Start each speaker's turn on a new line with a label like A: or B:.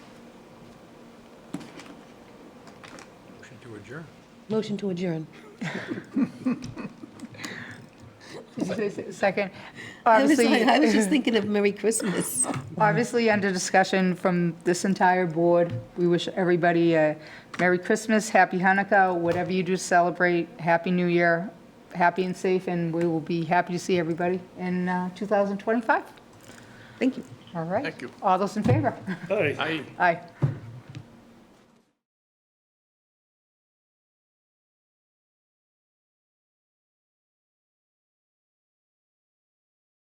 A: adjourn.
B: Motion to adjourn.
C: Second,
B: I was,
C: obviously,
B: like- I was just thinking of Merry Christmas.
C: obviously under discussion from this entire board, we wish everybody a Merry Christmas, Happy Hanukkah, whatever you do to celebrate, Happy New Year, happy and safe, and we will be happy to see everybody in uh, 2025.
B: Thank you.
C: All right?
A: Thank you.
C: All those in favor?
D: Aye.
A: Aye.
C: Aye.